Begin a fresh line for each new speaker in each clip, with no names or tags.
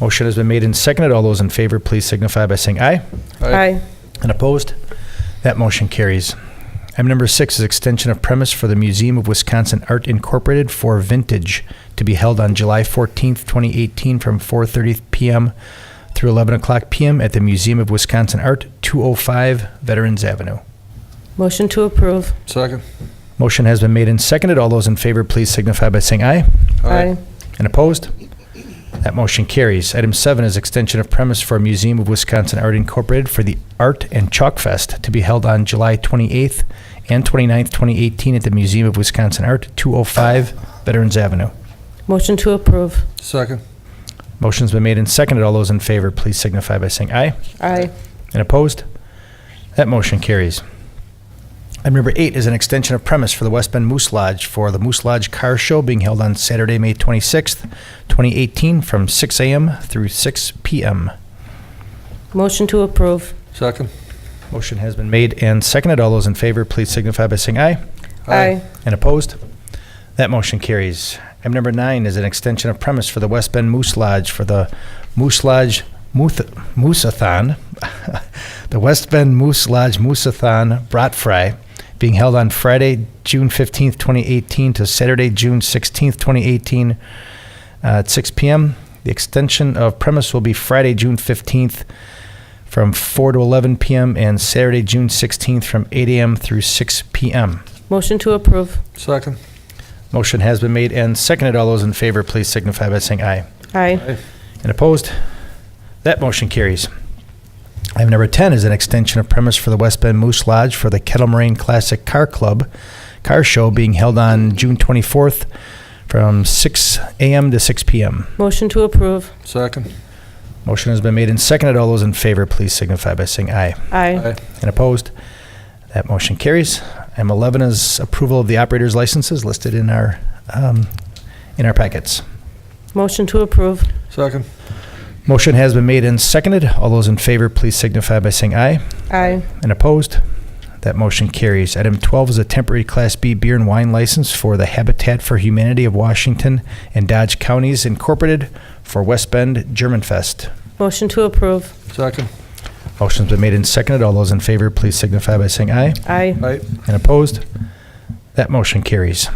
Motion has been made and seconded. All those in favor, please signify by saying aye.
Aye.
And opposed? That motion carries. Item number six is extension of premise for the Museum of Wisconsin Art Incorporated for Vintage to be held on July 14th, 2018 from 4:30 PM through 11 o'clock PM at the Museum of Wisconsin Art, 205 Veterans Avenue.
Motion to approve.
Second.
Motion has been made and seconded. All those in favor, please signify by saying aye. And opposed? That motion carries. Item seven is extension of premise for Museum of Wisconsin Art Incorporated for the Art and Chalk Fest to be held on July 28th and 29th, 2018 at the Museum of Wisconsin Art, 205 Veterans Avenue.
Motion to approve.
Second.
Motion's been made and seconded. All those in favor, please signify by saying aye.
Aye.
And opposed? That motion carries. Item number eight is an extension of premise for the West Bend Moose Lodge for the Moose Lodge Car Show being held on Saturday, May 26th, 2018, from 6 a.m. through 6 p.m.
Motion to approve.
Second.
Motion has been made and seconded. All those in favor, please signify by saying aye.
Aye.
And opposed? That motion carries. Item number nine is an extension of premise for the West Bend Moose Lodge for the Moose Lodge Mooth- Mooseathon, the West Bend Moose Lodge Mooseathon Brat Fry, being held on Friday, June 15th, 2018 to Saturday, June 16th, 2018 uh, at 6 p.m. The extension of premise will be Friday, June 15th from 4 to 11 p.m. and Saturday, June 16th from 8 a.m. through 6 p.m.
Motion to approve.
Second.
Motion has been made and seconded. All those in favor, please signify by saying aye.
Aye.
And opposed? That motion carries. Item number 10 is an extension of premise for the West Bend Moose Lodge for the Kettle Moraine Classic Car Club Car Show being held on June 24th from 6 a.m. to 6 p.m.
Motion to approve.
Second.
Motion has been made and seconded. All those in favor, please signify by saying aye.
Aye.
And opposed? That motion carries. Item 11 is approval of the operator's licenses listed in our, um, in our packets.
Motion to approve.
Second.
Motion has been made and seconded. All those in favor, please signify by saying aye.
Aye.
And opposed? That motion carries. Item 12 is a temporary Class B beer and wine license for the Habitat for Humanity of Washington and Dodge Counties Incorporated for West Bend Germanfest.
Motion to approve.
Second.
Motion's been made and seconded. All those in favor, please signify by saying aye.
Aye.
Aye.
And opposed? That motion carries.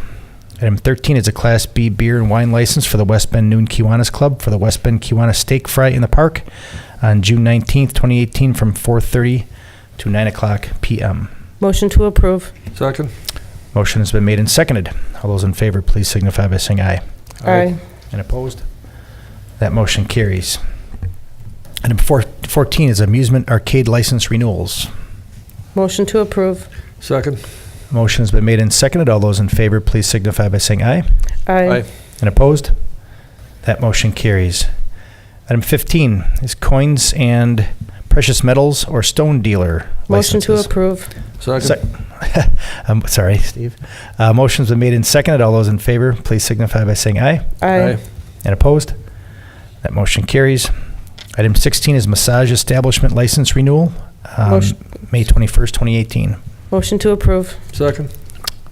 Item 13 is a Class B beer and wine license for the West Bend Noon Kiwanis Club for the West Bend Kiwanis Steak Fry in the Park on June 19th, 2018, from 4:30 to 9 o'clock p.m.
Motion to approve.
Second.
Motion has been made and seconded. All those in favor, please signify by saying aye.
Aye.
And opposed? That motion carries. Item four- 14 is amusement arcade license renewals.
Motion to approve.
Second.
Motion has been made and seconded. All those in favor, please signify by saying aye.
Aye.
And opposed? That motion carries. Item 15 is coins and precious metals or stone dealer
Motion to
licenses.
approve.
Second.
Sec- I'm sorry, Steve. Uh, Motion's been made and seconded. All those in favor, please signify by saying aye.
Aye.
And opposed? That motion carries. Item 16 is massage establishment license renewal, um,
Motion-
May 21st, 2018.
Motion to approve.
Second.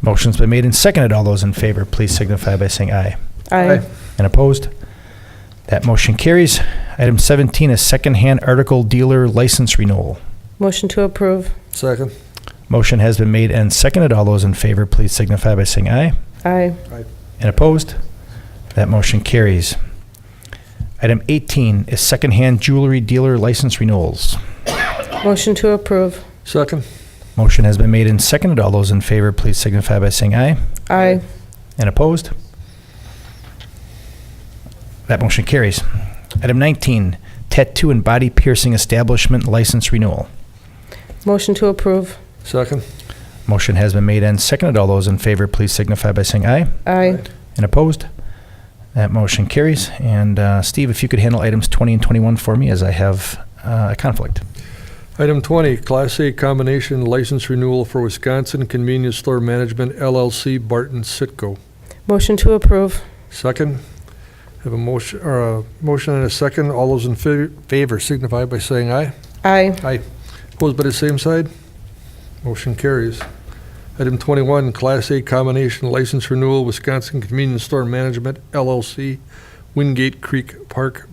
Motion's been made and seconded. All those in favor, please signify by saying aye.
Aye.
And opposed? That motion carries. Item 17 is secondhand article dealer license renewal.
Motion to approve.
Second.
Motion has been made and seconded. All those in favor, please signify by saying aye.
Aye.
And opposed? That motion carries. Item 18 is secondhand jewelry dealer license renewals.
Motion to approve.
Second.
Motion has been made and seconded. All those in favor, please signify by saying aye.
Aye.
And opposed? That motion carries. Item 19, tattoo and body piercing establishment license renewal.
Motion to approve.
Second.
Motion has been made and seconded. All those in favor, please signify by saying aye.
Aye.
And opposed? That motion carries. And uh, Steve, if you could handle items 20 and 21 for me, as I have uh, a conflict.
Item 20, Class A Combination License Renewal for Wisconsin Convenience Store Management LLC, Barton Sitco.
Motion to approve.
Second. Have a motion, or a motion and a second. All those in fa- favor signify by saying aye.
Aye.
Opposed by the same side? Motion carries. Item 21, Class A Combination License Renewal, Wisconsin Convenience Store Management LLC, Wingate Creek Park